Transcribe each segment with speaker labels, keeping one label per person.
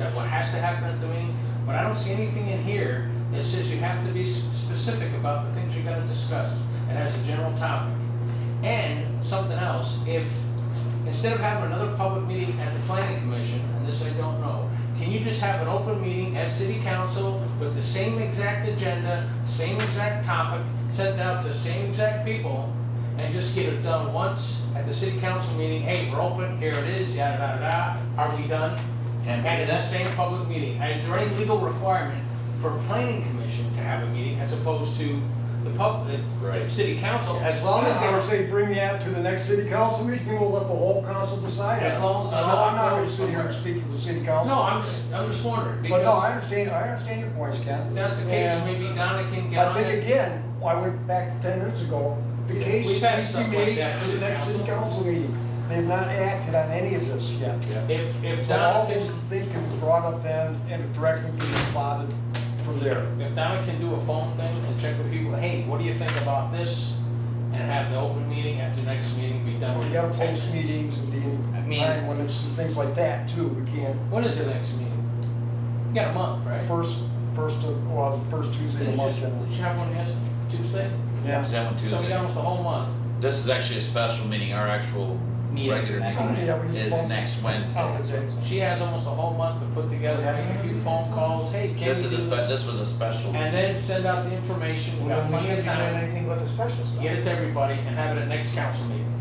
Speaker 1: at what has to happen at the meeting, but I don't see anything in here that says you have to be s- specific about the things you're gonna discuss. It has a general topic. And something else, if, instead of having another public meeting at the planning commission, and this I don't know, can you just have an open meeting at city council with the same exact agenda, same exact topic, sent out to the same exact people, and just get it done once at the city council meeting, hey, we're open, here it is, yada, yada, yada, are we done?
Speaker 2: Can't
Speaker 1: And
Speaker 2: do
Speaker 1: it's
Speaker 2: that.
Speaker 1: the same public meeting, is there any legal requirement for planning commission to have a meeting as opposed to the pub, the
Speaker 3: Right.
Speaker 1: city council, as long as they
Speaker 4: I
Speaker 1: were
Speaker 4: would say bring that to the next city council meeting, we'll let the whole council decide.
Speaker 1: As long as-
Speaker 4: No, I'm not gonna sit here and speak for the city council.
Speaker 1: No, I'm just, I'm just wondering,
Speaker 4: But no, I
Speaker 1: because
Speaker 4: understand, I understand your points, Ken.
Speaker 1: if that's the case,
Speaker 4: And
Speaker 1: maybe Donna can get
Speaker 4: I
Speaker 1: on
Speaker 4: think
Speaker 1: it.
Speaker 4: again, I went back to ten minutes ago, the
Speaker 3: Yeah.
Speaker 4: case
Speaker 1: We've had
Speaker 4: needs to
Speaker 1: stuff
Speaker 4: be
Speaker 1: like
Speaker 4: made
Speaker 1: that
Speaker 4: for
Speaker 1: through
Speaker 4: the next city
Speaker 1: council.
Speaker 4: council meeting. They've not acted on any of this yet.
Speaker 1: If, if
Speaker 4: So all
Speaker 1: Donna
Speaker 4: those
Speaker 1: can,
Speaker 4: things can be brought up then and directly be plotted from there.
Speaker 1: if Donna can do a phone thing and check with people, hey, what do you think about this? And have the open meeting at the next meeting be done
Speaker 4: Or
Speaker 1: with.
Speaker 4: you gotta
Speaker 1: ten
Speaker 4: post
Speaker 1: minutes.
Speaker 4: meetings and be
Speaker 2: I
Speaker 4: in
Speaker 2: mean-
Speaker 4: time limits and things like that too, we can't.
Speaker 1: When is the next meeting? You got a month, right?
Speaker 4: First, first, of- well, the first Tuesday of the month
Speaker 1: Did
Speaker 4: generally.
Speaker 1: you have one yesterday, Tuesday?
Speaker 2: Is
Speaker 4: Yeah.
Speaker 2: that one
Speaker 1: So we got
Speaker 2: Tuesday?
Speaker 1: almost a whole month.
Speaker 2: This is actually a special meeting, our actual
Speaker 3: Meeting's
Speaker 2: regular
Speaker 3: next
Speaker 2: meeting
Speaker 4: Yeah, we just
Speaker 2: is
Speaker 4: posted.
Speaker 2: next Wednesday.
Speaker 1: She has almost a whole month to put together, make a few phone calls, hey, can we
Speaker 2: This is
Speaker 1: do
Speaker 2: a spe,
Speaker 1: this?
Speaker 2: this was a special.
Speaker 1: And then send out the information, we have
Speaker 5: Well,
Speaker 1: plenty
Speaker 5: we should be
Speaker 1: of
Speaker 5: doing
Speaker 1: time.
Speaker 5: anything about the special stuff.
Speaker 1: get it to everybody and have it at next council meeting.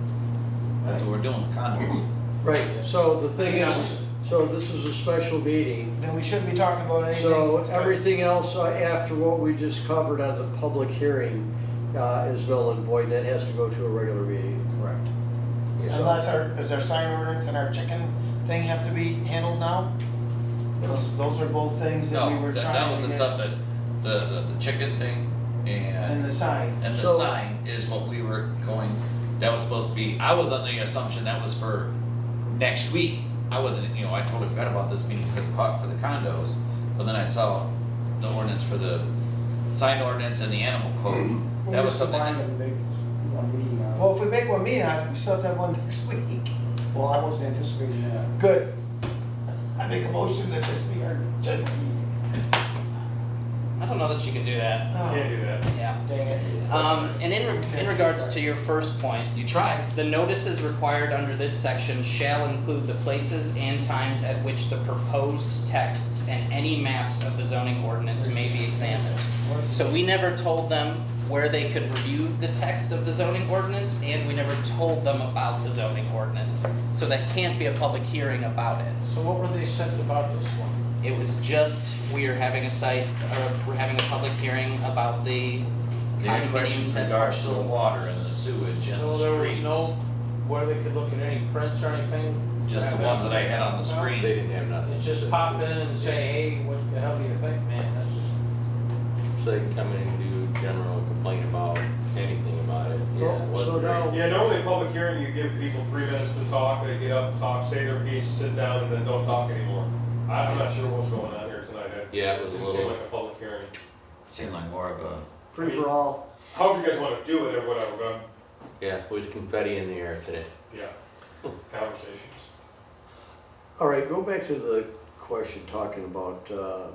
Speaker 2: That's what we're doing, condos.
Speaker 6: Right, so the thing
Speaker 1: Yeah.
Speaker 6: is, so this is a special meeting,
Speaker 5: Then we shouldn't be talking about anything.
Speaker 6: so everything else uh, after what we just covered on the public hearing uh, is null and void, that has to go to a regular meeting.
Speaker 2: Correct.
Speaker 5: Unless our, does our sign ordinance and our chicken thing have to be handled now? Those, those are both things that we
Speaker 2: No,
Speaker 5: were
Speaker 2: that,
Speaker 5: trying
Speaker 2: that
Speaker 5: to
Speaker 2: was the
Speaker 5: get-
Speaker 2: stuff that, the, the, the chicken thing
Speaker 5: And
Speaker 2: and,
Speaker 5: the sign.
Speaker 2: and the
Speaker 6: So-
Speaker 2: sign is what we were going, that was supposed to be, I was under the assumption that was for next week. I wasn't, you know, I totally forgot about this meeting for the co- for the condos, but then I saw the ordinance for the sign ordinance and the animal
Speaker 4: Mm-hmm.
Speaker 2: code. That was something that-
Speaker 4: uh,
Speaker 6: Oh.
Speaker 5: Well, if we make one meeting, I- we still have to have one next week.
Speaker 4: Well, I wasn't anticipating that.
Speaker 5: Good. I make a motion that this be our general meeting.
Speaker 7: I don't know that you can do that.
Speaker 5: Oh,
Speaker 1: do that.
Speaker 7: Yeah.
Speaker 5: Dang it.
Speaker 7: Um, and in, in regards to your first point,
Speaker 2: you tried.
Speaker 7: the notices required under this section shall include the places and times at which the proposed text and any maps of the zoning ordinance may be examined. So we never told them where they could review the text of the zoning ordinance, and we never told them about the zoning ordinance. So that can't be a public hearing about it.
Speaker 1: So what were they said about this one?
Speaker 7: It was just, we are having a site, or we're having a public hearing about the
Speaker 2: Your questions
Speaker 7: condominiums
Speaker 2: in
Speaker 7: and
Speaker 2: regards to the
Speaker 7: parcel.
Speaker 2: water and the sewage and
Speaker 1: So
Speaker 2: the streets.
Speaker 1: there was no, where they could look at any prints or anything?
Speaker 2: Just the ones that I had on the
Speaker 3: They
Speaker 2: screen.
Speaker 3: didn't have nothing.
Speaker 1: It's just pop in and say, hey, what the hell do you think, man? That's just,
Speaker 3: So they can come in and do general complaint about anything about it. Yeah,
Speaker 6: Well,
Speaker 3: it wasn't
Speaker 6: Oh, so
Speaker 3: great.
Speaker 6: now-
Speaker 8: Yeah, normally a public hearing, you give people three minutes to talk, they get up, talk, say their piece, sit down, and then don't talk anymore. I- I'm not sure what's going on here tonight. It
Speaker 3: Yeah, it was a
Speaker 8: Didn't seem
Speaker 3: little,
Speaker 8: like a public hearing.
Speaker 2: Seemed like more of a,
Speaker 6: Free for all.
Speaker 8: However you guys want to do it or whatever, but,
Speaker 3: yeah, it was confetti in the air today.
Speaker 8: yeah, conversations.
Speaker 6: All right, go back to the question talking about uh,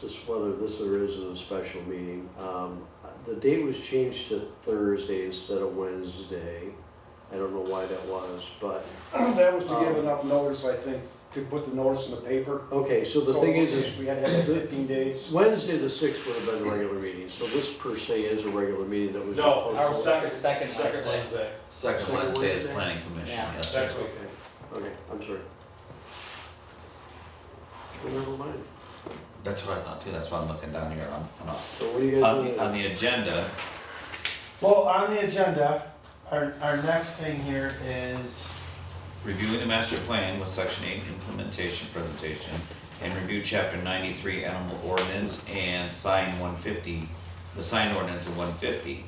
Speaker 6: just whether this or isn't a special meeting. Um, The date was changed to Thursday instead of Wednesday. I don't know why that was, but,
Speaker 4: That was to give enough notice, I think, to put the notice in the paper.
Speaker 6: okay, so the thing is, is
Speaker 4: We had to have it fifteen days.
Speaker 6: Wednesday the sixth would have been a regular meeting, so this per se is a regular meeting that was just
Speaker 8: No, our
Speaker 6: posted.
Speaker 8: second,
Speaker 7: Second
Speaker 8: second
Speaker 7: Wednesday.
Speaker 8: Wednesday,
Speaker 2: second
Speaker 6: Second
Speaker 2: Wednesday is
Speaker 6: Wednesday?
Speaker 2: planning commission,
Speaker 7: Yeah.
Speaker 2: yes. sir.
Speaker 8: next week.
Speaker 6: Okay, I'm sorry. Well, Never mind.
Speaker 2: That's what I thought too, that's why I'm looking down here on, on, a-
Speaker 6: So what do you guys
Speaker 2: on
Speaker 6: want
Speaker 2: the, on
Speaker 6: to
Speaker 2: the agenda.
Speaker 5: Well, on the agenda, our, our next thing here is
Speaker 2: Reviewing the master plan with section eight implementation presentation and review chapter ninety-three animal ordinance and sign one fifty, the sign ordinance of one fifty.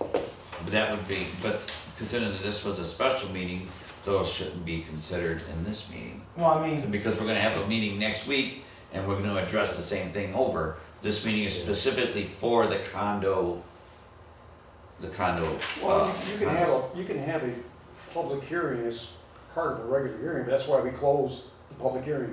Speaker 2: But that would be, but considering that this was a special meeting, those shouldn't be considered in this meeting.
Speaker 5: Well, I
Speaker 2: So
Speaker 5: mean,
Speaker 2: Because we're gonna have a meeting next week and we're gonna address the same thing over. This meeting is specifically for the condo, the condo.
Speaker 4: Well,
Speaker 2: uh,
Speaker 4: you- you can have, a you can have a public hearing as part of a regular hearing, but that's why we closed the the public hearing.